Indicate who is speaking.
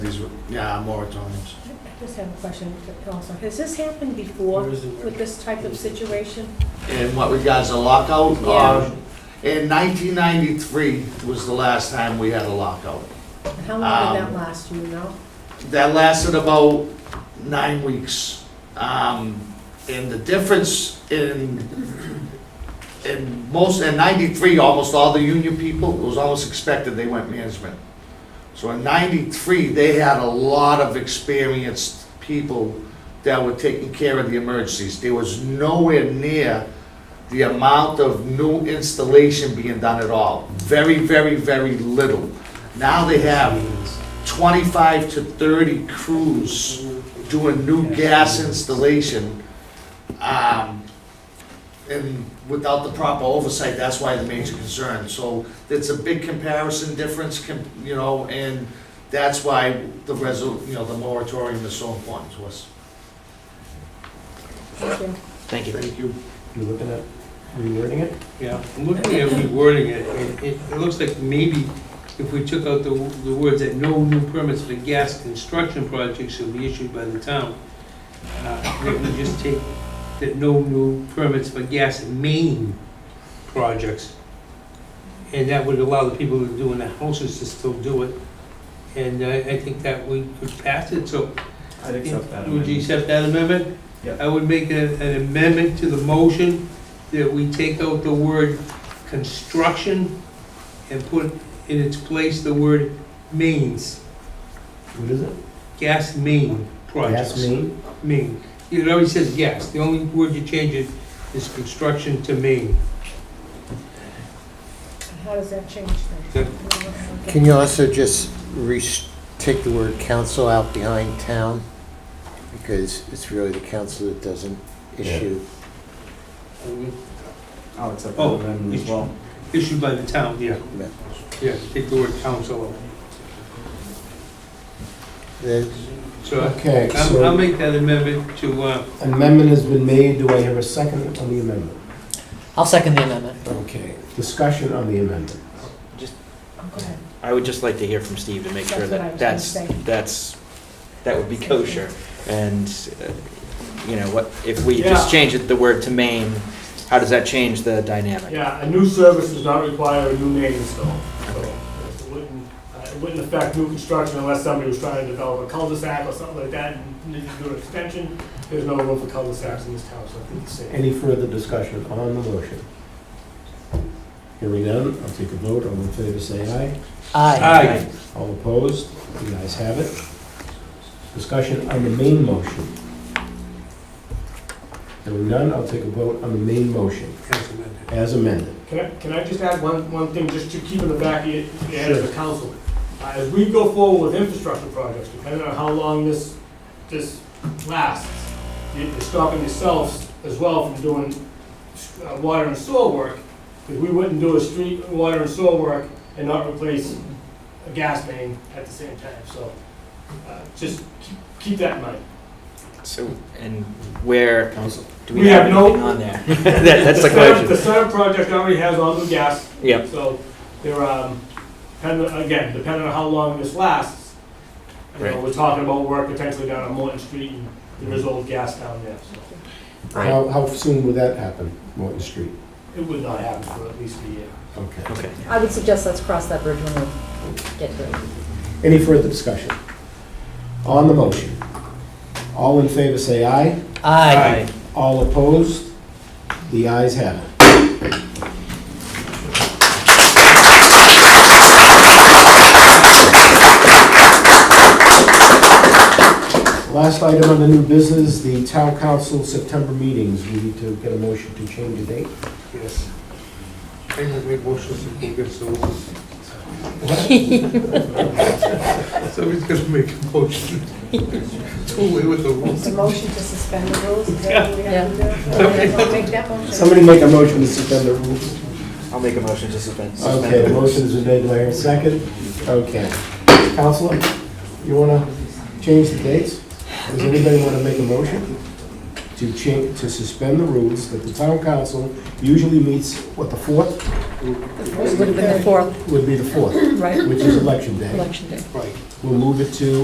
Speaker 1: yeah, moratoriums.
Speaker 2: I just have a question also. Has this happened before with this type of situation?
Speaker 1: And what regards a lockout,
Speaker 2: Yeah.
Speaker 1: uh, in nineteen ninety-three was the last time we had a lockout.
Speaker 2: And how long did that
Speaker 1: Um,
Speaker 2: last, do you know?
Speaker 1: That lasted about nine weeks. Um, and the difference in, in most, in ninety-three, almost all the union people, it was almost expected they went management. So in ninety-three, they had a lot of experienced people that were taking care of the emergencies. There was nowhere near the amount of new installation being done at all. Very, very, very little. Now they have 25 to 30 crews doing new gas installation. um, And without the proper oversight, that's why the major concern. So it's a big comparison difference, com- you know, and that's why the resol, you know, the moratorium is so important to us.
Speaker 2: Thank you.
Speaker 3: Thank you.
Speaker 1: Thank you.
Speaker 4: You're looking at rewording it?
Speaker 5: Yeah, I'm looking at rewording it, and it, it looks like maybe if we took out the, the words that no new permits for gas construction projects shall be issued by the town, uh, maybe we just take that no new permits for gas main projects. And that would allow the people who are doing the houses to still do it, and I, I think that we could pass it, so
Speaker 4: I'd
Speaker 5: would you accept that amendment?
Speaker 4: Yeah.
Speaker 5: I would make a- an amendment to the motion that we take out the word construction and put in its place the word mains,
Speaker 4: What is it?
Speaker 5: gas main projects.
Speaker 4: Gas main?
Speaker 5: Main. It already says gas. The only word you change it is construction to main.
Speaker 2: And How does that change things? Okay.
Speaker 6: Can you also just res- take the word council out behind town? Because it's really the council that doesn't issue.
Speaker 4: I'll accept
Speaker 5: that amendment as well. Issued by the town, yeah.
Speaker 6: Yeah.
Speaker 5: Yeah, take the word council out.
Speaker 6: the-
Speaker 5: So
Speaker 4: Okay,
Speaker 5: I'll, I'll
Speaker 4: so
Speaker 5: make that amendment to, uh,
Speaker 4: amendment has been made. Do I have a second on the amendment?
Speaker 3: I'll second the amendment.
Speaker 4: Okay, discussion on the amendment.
Speaker 2: Go ahead.
Speaker 3: I would just like to hear from Steve to make sure
Speaker 2: That's what I
Speaker 3: that
Speaker 2: was gonna
Speaker 3: that's,
Speaker 2: say.
Speaker 3: that's, that would be kosher. And, uh, you know, what, if we just change it, the word to Maine, how does that change the dynamic?
Speaker 7: Yeah, a new service does not require a new main install. So It wouldn't, uh, it wouldn't affect new construction unless somebody was trying to develop a cul-de-sac or something like that and needed to do an extension. There's no room for cul-de-sacs in this town, so I think it's safe.
Speaker 4: Any further discussion on the motion? Hearing none, I'll take a vote. All in favor, say aye.
Speaker 5: aye.
Speaker 4: All opposed? The ayes have it. Discussion on the main motion. Hearing none, I'll take a vote on the main motion
Speaker 5: As amended.
Speaker 4: as amended.
Speaker 7: Can I, can I just add one, one thing, just to keep in the back of your your head as
Speaker 4: Sure.
Speaker 7: a council? Uh, As we go forward with infrastructure projects, depending on how long this, this lasts, you- you're stopping yourselves as well from doing uh, water and soil work, because we wouldn't do a street, water and soil work and not replace a gas main at the same time, so, uh, just keep- keep that in mind.
Speaker 3: So, and where, do we
Speaker 7: We
Speaker 3: have
Speaker 7: have no-
Speaker 3: anything on there? That- That's the
Speaker 7: Senate- The
Speaker 3: question.
Speaker 7: Senate project already has all the gas.
Speaker 3: Yep.
Speaker 7: So they're, um, depending, again, depending on how long this lasts, you know,
Speaker 3: Right.
Speaker 7: we're talking about work potentially down on Morton Street and there is old gas down there, so
Speaker 4: How, how soon would that happen, Morton Street?
Speaker 7: it would not happen for at least a year.
Speaker 4: Okay.
Speaker 3: Okay.
Speaker 8: I would suggest let's cross that bridge when we get to it.
Speaker 4: Any further discussion? On the motion, all in favor say aye.
Speaker 3: Aye.
Speaker 4: All opposed? The ayes have it. Last item on the new business, the town council September meetings. We need to get a motion to change the date.
Speaker 5: Yes. I will make motions to give us those. Somebody's gonna make a motion to away with the
Speaker 2: It's a
Speaker 5: rules.
Speaker 2: motion to suspend the rules, is that what we have to do? Okay, I'll make that motion.
Speaker 4: Somebody make a motion to suspend the rules.
Speaker 3: I'll make a motion to suspend. suspend
Speaker 4: Okay,
Speaker 3: the
Speaker 4: the
Speaker 3: rules.
Speaker 4: motion is made by Aaron, second. Okay. Counselor, you want to change the dates? Does anybody want to make a motion to change, to suspend the rules that the town council usually meets, what, the fourth?
Speaker 8: It would have been the fourth,
Speaker 4: Would be the fourth,
Speaker 8: right,
Speaker 4: which is election day.
Speaker 8: election day.
Speaker 5: Right.
Speaker 4: We'll move it to